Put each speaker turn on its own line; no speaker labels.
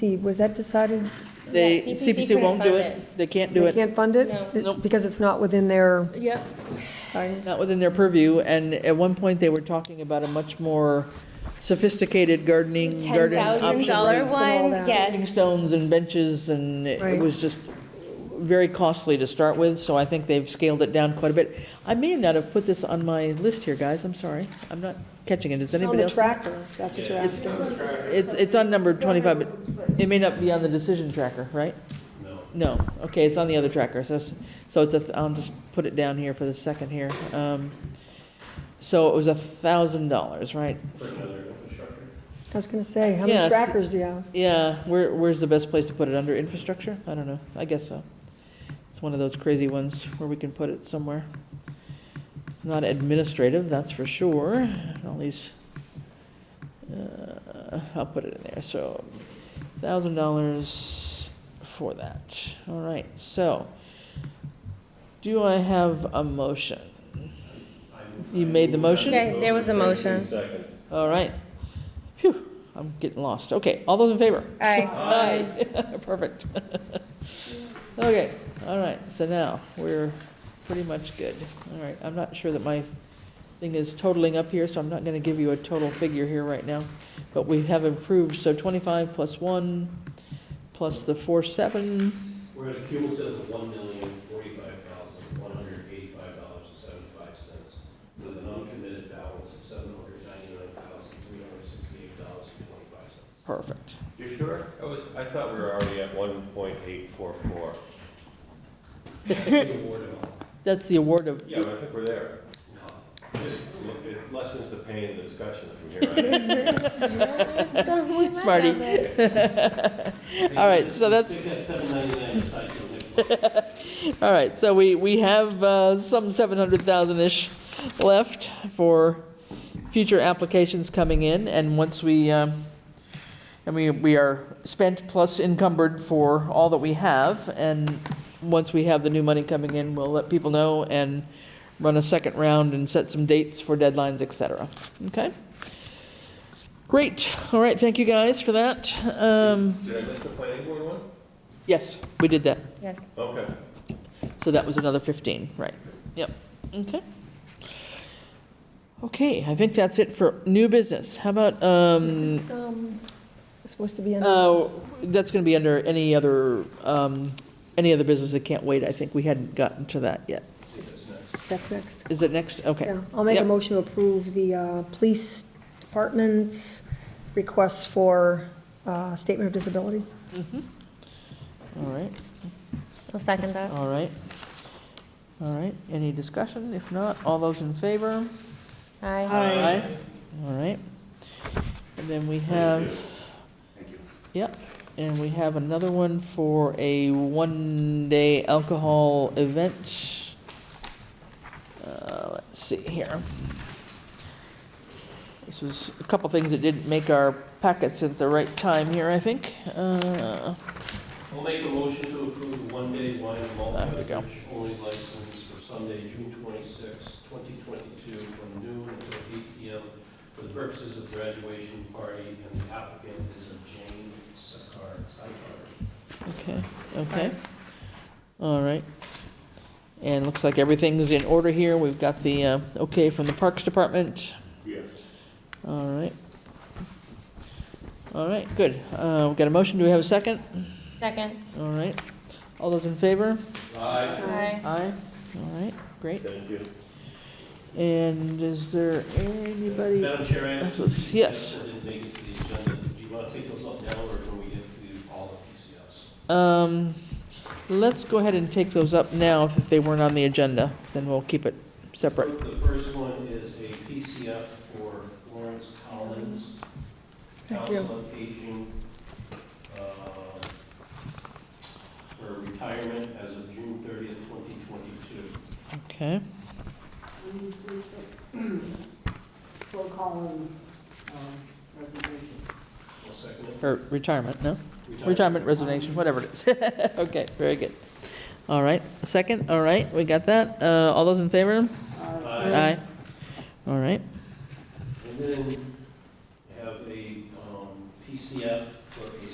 See, was that decided?
They,
Yeah,
CPC won't do
couldn't
it, they can't do
They
it,
can't fund it?
No.
It-
Nope.
Because it's not within their,
fund it. Yep,
not within their purview, and at one point, they were talking about a much more sophisticated gardening,
ten
garden
thousand
option.
dollar
rates and all
one,
that.
Stepping
yes.
Stones and benches, and it-
Right.
it was just very costly to start with, so I think they've scaled it down quite a bit. I may not have put this on my list here, guys, I'm sorry, I'm not catching it,
it's
is
on
anybody
the
else?
tracker, if that's what you're
It's,
asking.
it's, it's on number 25, but it may not be on the decision tracker, right? No. No, okay, it's on the other tracker, so, it's- so it's a, th- I'll just put it down here for the second here. Um, So it was a thousand dollars, right?
I was gonna say, how many
Yes.
trackers do you have?
Yeah, where, where's the best place to put it, under infrastructure? I don't know, I guess so. It's one of those crazy ones where we can put it somewhere. It's not administrative, that's for sure, all these, uh, I'll put it in there, so, thousand dollars for that, all right, so, do I have a motion? You made the motion?
Okay, there was a motion.
All right. Phew, I'm getting lost. Okay, all those in favor?
Aye.
Aye. Perfect. Okay, all right, so now, we're pretty much good. All right, I'm not sure that my thing is totaling up here, so I'm not gonna give you a total figure here right now. But we have improved, so twenty-five plus one, plus the four seven,
We're at a cumulative of one million, forty-five thousand, one hundred eighty-five dollars and seventy-five cents, with an uncommitted balance of seven hundred ninety-nine thousand, three hundred sixty-eight dollars and twenty-five cents.
perfect.
You sure? I was, I thought we were already at one point eight four four.
That's the award of,
Yeah, but I think we're there. Just, look, it lessens the pain in the discussion from here on.
Smarty. All right, so that's-
Stick that seven ninety-nine aside till next month.
All right, so we, we have uh, some 700,000-ish left for future applications coming in, and once we, um, and we, we are spent plus encumbered for all that we have, and once we have the new money coming in, we'll let people know and run a second round and set some dates for deadlines, et cetera. Okay? Great, all right, thank you guys for that. Um,
Did I miss the planning board one?
Yes, we did that.
Yes.
Okay.
So that was another 15, right? Yep, okay. Okay, I think that's it for new business. How about,
This
um,
is, um, supposed to be in,
uh, that's going to be under any other, um, any other business that can't wait. I think we hadn't gotten to that yet.
that's next.
Is it next? Okay.
Yeah, I'll make a
Yep.
motion to approve the uh, police department's request for uh, statement of disability.
Mm-hmm. All right,
I'll second that.
all right. All right, any discussion? If not, all those in favor?
Aye.
Uh,
Aye. All right. And then we have. Thank you. Yep, and we have another one for a one-day alcohol event. Uh, Let's see here. This was a couple things that didn't make our packets at the right time here, I think. Uh,
I'll make a motion to approve the one-day wine and malt
There we go.
beverage only license for Sunday, June 26, 2022, from noon until 8 p.m. for the purposes of graduation party, and the applicant is a Jane Sakar. Sakar.
Okay, okay. All right. And looks like everything's in order here. We've got the uh, okay from the Parks Department.
Yes.
All right. All right, good. Uh, We've got a motion. Do we have a second?
Second.
All right. All those in favor?
Aye.
Aye.
Aye. All right, great.
Thank you.
And is there anybody?
Madam Chair, I have
This
two
is-
PCFs
yes.
that didn't make it to the agenda. Do you want to take those up now, or when we get to all the
Um, Let's go ahead and take those up now if they weren't on the agenda. Then we'll keep it separate.
PCFs? The first one is a PCF for Florence Collins.
Thank you.
Council on Aging, uh, her retirement as of June 30th, 2022.
Okay.
Phil Collins' um, resignation.
I'll second it.
Or retirement, no? Retirement resignation, whatever it is. Okay, very good. All right, second, all right, we got that. Uh, All those in favor?
Uh,
Aye.
Aye. All right.
And then I have a um, PCF